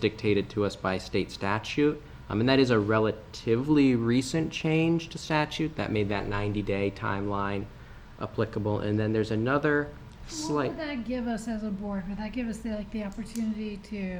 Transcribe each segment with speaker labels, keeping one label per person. Speaker 1: dictated to us by state statute. Um, and that is a relatively recent change to statute that made that 90-day timeline applicable. And then there's another
Speaker 2: What
Speaker 1: slight.
Speaker 2: would that give us as a board? Would that give us the, like, the opportunity to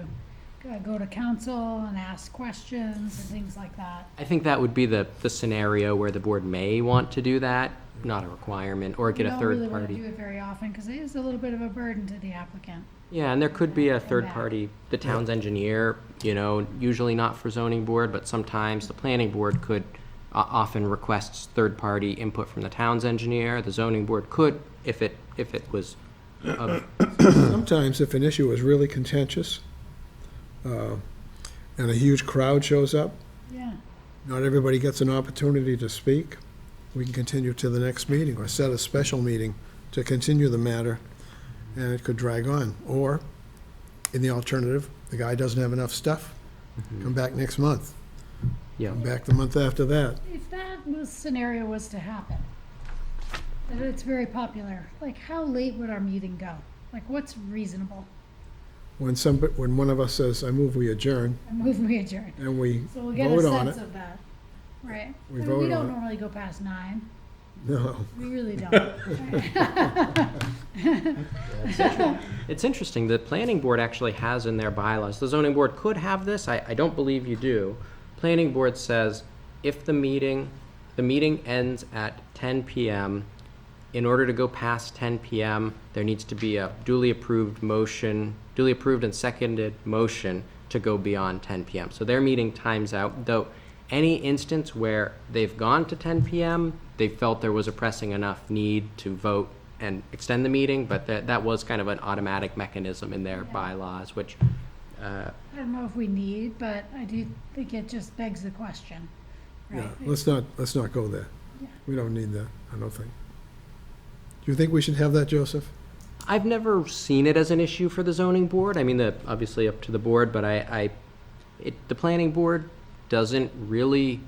Speaker 2: uh, go to council and ask questions and things like that?
Speaker 1: I think that would be the, the scenario where the board may want to do that, not a requirement, or get a
Speaker 2: We don't
Speaker 1: third
Speaker 2: really want to do
Speaker 1: party.
Speaker 2: it very often, because it is a little bit of a burden to the applicant.
Speaker 1: Yeah, and there could be a
Speaker 2: Come
Speaker 1: third
Speaker 2: back.
Speaker 1: party, the town's engineer, you know, usually not for zoning board, but sometimes the planning board could, o- often requests third party input from the town's engineer. The zoning board could, if it, if it was of
Speaker 3: Sometimes if an issue is really contentious, uh, and a huge crowd shows up,
Speaker 2: Yeah,
Speaker 3: not everybody gets an opportunity to speak, we can continue to the next meeting or set a special meeting to continue the matter, and it could drag on. Or, in the alternative, the guy doesn't have enough stuff, come back next month,
Speaker 1: Yeah,
Speaker 3: come back the month after that.
Speaker 2: if that was, scenario was to happen, that it's very popular, like, how late would our meeting go? Like, what's reasonable?
Speaker 3: When some, when one of us says, I move we adjourn,
Speaker 2: I move we adjourn.
Speaker 3: and we
Speaker 2: So we'll get a
Speaker 3: vote on
Speaker 2: sense
Speaker 3: it.
Speaker 2: of that, right? I
Speaker 3: We
Speaker 2: mean,
Speaker 3: vote
Speaker 2: We
Speaker 3: on
Speaker 2: don't
Speaker 3: it.
Speaker 2: normally go past nine,
Speaker 3: No,
Speaker 2: we really don't.
Speaker 1: It's interesting, the planning board actually has in their bylaws, the zoning board could have this, I, I don't believe you do. Planning board says, if the meeting, the meeting ends at ten PM, in order to go past ten PM, there needs to be a duly approved motion, duly approved and seconded motion to go beyond ten PM. So their meeting times out, though any instance where they've gone to ten PM, they felt there was a pressing enough need to vote and extend the meeting, but that, that was kind of an automatic mechanism in their bylaws, which, uh,
Speaker 2: I don't know if we need, but I do think it just begs the question,
Speaker 3: yeah,
Speaker 2: right?
Speaker 3: let's not, let's not go there.
Speaker 2: Yeah.
Speaker 3: We don't need that, I don't think. Do you think we should have that, Joseph?
Speaker 1: I've never seen it as an issue for the zoning board. I mean, the, obviously up to the board, but I, I, it, the planning board doesn't really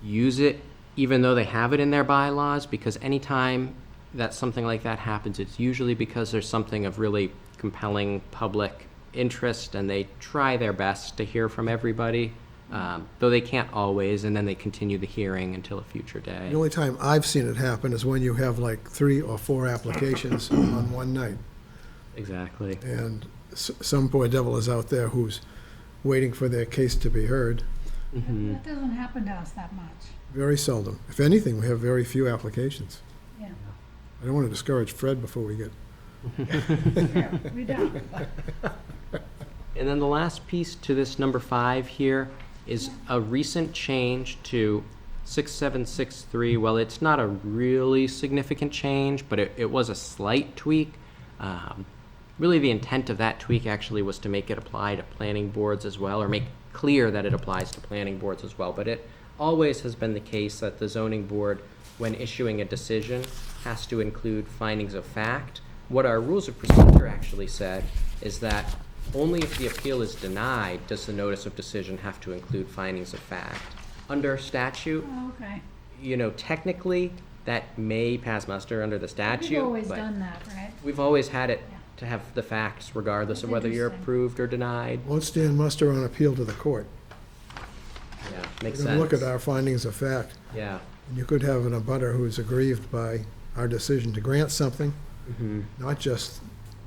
Speaker 1: use it, even though they have it in their bylaws, because anytime that something like that happens, it's usually because there's something of really compelling public interest, and they try their best to hear from everybody, um, though they can't always, and then they continue the hearing until a future day.
Speaker 3: The only time I've seen it happen is when you have like three or four applications on one night.
Speaker 1: Exactly.
Speaker 3: And s- some poor devil is out there who's waiting for their case to be heard.
Speaker 1: Mhm.
Speaker 2: That doesn't happen to us that much,
Speaker 3: Very seldom. If anything, we have very few applications.
Speaker 2: yeah.
Speaker 3: I don't want to discourage Fred before we get,
Speaker 2: True, We don't,
Speaker 1: And then the last piece to this number five here is a recent change to 6763. Well, it's not a really significant change, but it, it was a slight tweak. Um, really, the intent of that tweak actually was to make it apply to planning boards as well, or make clear that it applies to planning boards as well. But it always has been the case that the zoning board, when issuing a decision, has to include findings of fact. What our rules of procedure actually said is that only if the appeal is denied does the notice of decision have to include findings of fact. Under statute,
Speaker 2: Oh, okay.
Speaker 1: you know, technically, that may pass muster under the statute.
Speaker 2: We've always
Speaker 1: but
Speaker 2: done that, right?
Speaker 1: We've always had it
Speaker 2: Yeah.
Speaker 1: to have the facts regardless of
Speaker 2: That's
Speaker 1: whether you're
Speaker 2: interesting.
Speaker 1: approved or denied.
Speaker 3: won't stand muster on appeal to the court.
Speaker 1: Yeah, makes
Speaker 3: We're gonna
Speaker 1: sense.
Speaker 3: Look at our findings of fact.
Speaker 1: Yeah.
Speaker 3: And You could have an abutter who's aggrieved by our decision to grant something,
Speaker 1: Mhm.
Speaker 3: not just,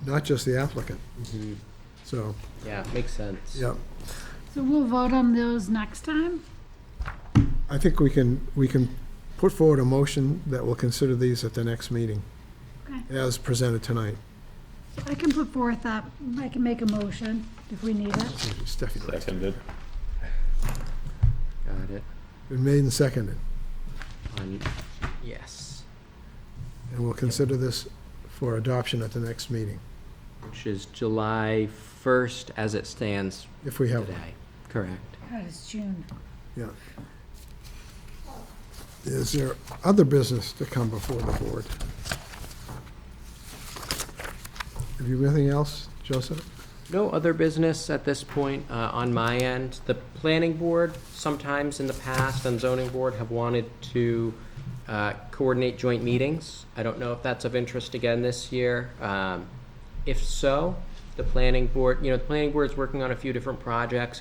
Speaker 3: not just the applicant.
Speaker 1: Mhm.
Speaker 3: So,
Speaker 1: Yeah, makes sense.
Speaker 3: yeah.
Speaker 2: So we'll vote on those next time?
Speaker 3: I think we can, we can put forward a motion that will consider these at the next meeting,
Speaker 2: Okay.
Speaker 3: as presented tonight.
Speaker 2: I can put forth that, I can make a motion if we need it.
Speaker 3: Stephanie,
Speaker 4: Seconded.
Speaker 1: Got it.
Speaker 3: been made and seconded,
Speaker 1: On- yes,
Speaker 3: and we'll consider this for adoption at the next meeting,
Speaker 1: which is July 1st as it stands
Speaker 3: if we have one.
Speaker 1: today. Correct.
Speaker 2: God, it's June.
Speaker 3: Yeah. Is there other business to come before the board? Have you anything else, Joseph?
Speaker 1: No other business at this point uh, on my end. The planning board, sometimes in the past, and zoning board have wanted to uh, coordinate joint meetings. I don't know if that's of interest again this year. Um, If so, the planning board, you know, the planning board's working on a few different projects.